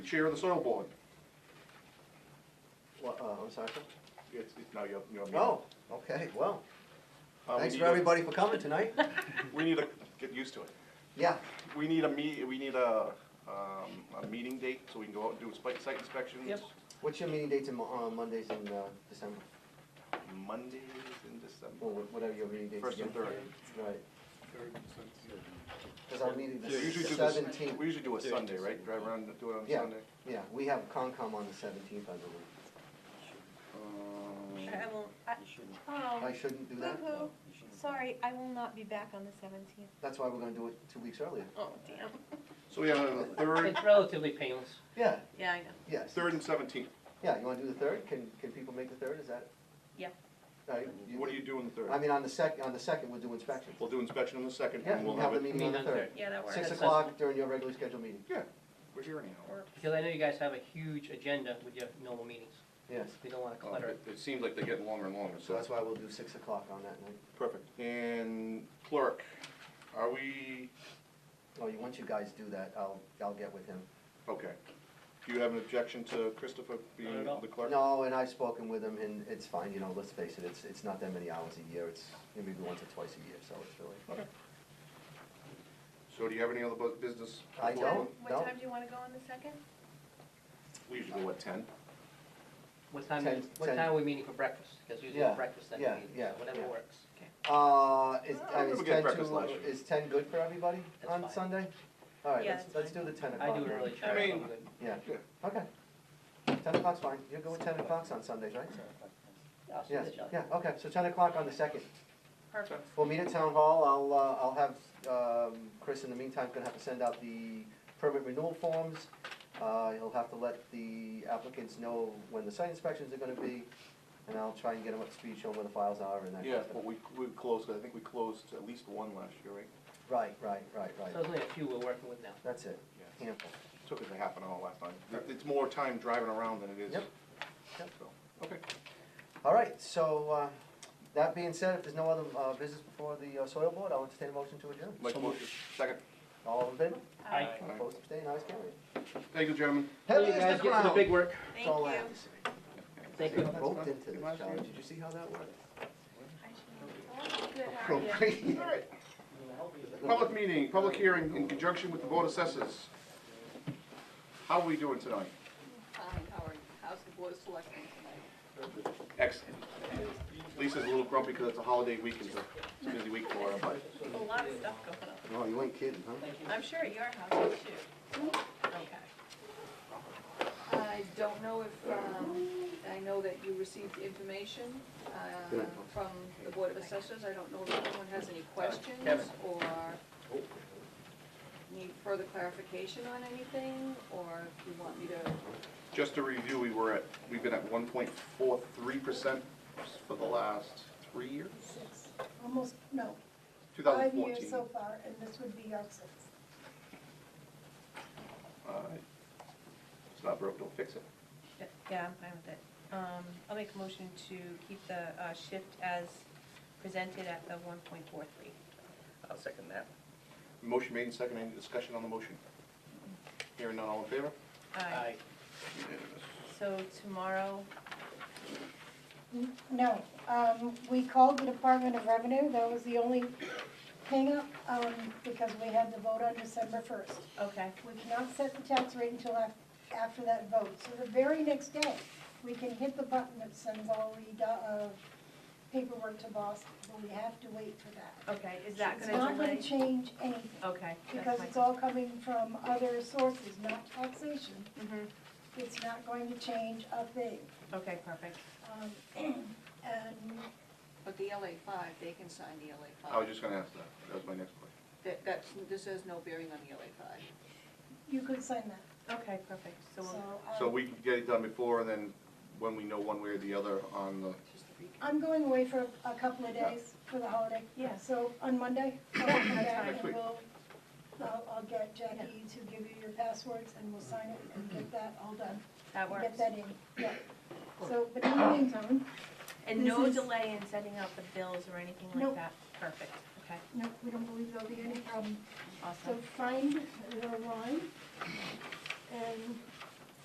Chair of the Soil Board. Well, uh, I'm sorry. sir? It's, it's now your, your meeting. Oh, okay, well, Uh, we thanks need for a- everybody for coming tonight. We need to get used to it. Yeah, We need a meet, we need a, um, a meeting date so we can go out and do site, site inspections. Yep. what's your meeting dates in, Mo- uh, Mondays in, uh, December, Mondays in December, or wha- whatever your meeting dates? first and again. third. Right, cause our meeting Yeah, is usually do this, seventeenth, we usually do a Sunday, right? Drive around and do it on Yeah. Sunday. yeah, we have Concom on the seventeenth, I believe. Um, I will, I, I oh, shouldn't do that, boo-hoo, sorry, I will not be back on the seventeenth. that's why we're gonna do it two weeks earlier. Oh, damn. So we have the third, It's relatively painless. Yeah, Yeah, I know. yes, third and seventeenth. yeah, you wanna do the third, can, can people make the third, is that? Yeah. All right, What do you do on the I third? mean, on the sec, on the second, we'll do inspections. We'll do inspection on the second Yeah, and we'll we'll have the have it, meeting on the Meeting on third, Yeah, that works. six That's- o'clock during your regularly scheduled meeting, we're here anyhow. Or- Because I know you guys have a huge agenda with your normal meetings. yes. We don't want to Uh, clutter it. Oh, It it seems like they're getting longer and longer, So that's why we'll do six o'clock on that night. Perfect. And clerk, are we, Oh, you, once you guys do that, I'll, I'll get with him. okay. Do you have an objection to Christopher being Not at all. the clerk? No, and I've spoken with him, and it's fine, you know, let's face it, it's, it's not that many hours a year, it's maybe once or twice a year, so it's really. So do you have any other bu- business? I before- don't. What time do you wanna go on the second? We usually go at ten. What time, Ten- is- what ten. time are we meeting for breakfast? Because usually Yeah, breakfast then yeah, we meet, yeah, so whatever yeah. works. Uh, is, I I mean, remember is getting ten breakfast last too, year. is ten good for everybody That's on fine. Sunday? All right, Yeah, let's, that's let's do fine. the ten I o'clock. do then. early I check. mean- Yeah, Yeah. okay. Ten o'clock's fine, you're going ten o'clock on Sundays, right? Yes, yeah, okay, so ten o'clock on the second. Perfect. We'll meet at town hall, I'll, uh, I'll have, um, Chris in the meantime, gonna have to send out the permit renewal forms. Uh, he'll have to let the applicants know when the site inspections are gonna be, and I'll try and get him up to speed, show him where the files are and that kind Yeah, of stuff. but we, we closed, I think we closed at least one last year, right? Right, right, right, So right, there's only a few we're working with now. that's it, handful. Took us a half an hour last time. It- It's more time driving around than it is. Yep. Yep. So, Okay. All right, so, uh, that being said, if there's no other, uh, business before the uh, soil board, I'll entertain a motion to adjourn. Mike, motion, second. All in favor? Hi. Alright, Aye. Opposed, abstained, ayes, carried. Thank you, gentlemen. Heavy You as guys the get to the crown. big work. Thank That's all I you. have to say. Thank you. I roped into this, Last John, year. did you see how that worked? I should- Good, how are you? All right. Public meeting, public hearing in conjunction with the board assessors. How are we doing tonight? Fine, how are you? How's the board of selectmen tonight? Excellent. Lisa's a little grumpy because it's a holiday week, it's a- it's a busy week for her, but. A lot of stuff going on. No, Oh, you ain't kidding, huh? I'm sure at your house too. Okay. I don't know if, um, I know that you received information uh, from the Board of Assessors. I don't know if anyone has any Uh, questions or need further clarification on anything, or if you want me to, Just to review, we were at, we've been at one point four three percent for the last three years? Six, almost, no, Two thousand five years fourteen. so far, and this would be our sixth. It's not broke, don't fix it. Yeah, I'm fine with it. Um, I'll make a motion to keep the, uh, shift as presented at the one point four three. I'll second that. Motion made and seconded, any discussion on the motion? Hearing none, all in favor? Aye. So tomorrow, Hmm? No, um, we called the Department of Revenue, that was the only hangup, um, because we had the vote on December first. okay, We cannot set the tax rate until af- after that vote, so the very next day, we can hit the button that sends all the, do- uh, paperwork to Boston, but we have to wait for that. okay, is that It's gonna not delay? gonna change anything. Okay, that's because fine. it's all coming from other sources, not taxation. Mhm. It's not going to change a thing. Okay, perfect. Um, And but the LA five, they can sign the LA I was five. just gonna ask that, that was my next question. That, that's, this has no bearing on the LA five. you could sign that. Okay, perfect. So So we'll um, So we could get it done before, and then when we know one way or the other on the, Just a recap. I'm going away for a couple of days for the holiday. Yeah. So on Monday, I'll come fine. back Next and week. we'll, I'll, I'll get Jackie to give you your passwords and we'll sign it and get that all done. That works. Get that in, yeah. So, but in the meantime, And This no is- delay in sending out the bills or anything like Nope. that? Perfect, okay, no, we don't believe there'll be any problem. So awesome. find the line and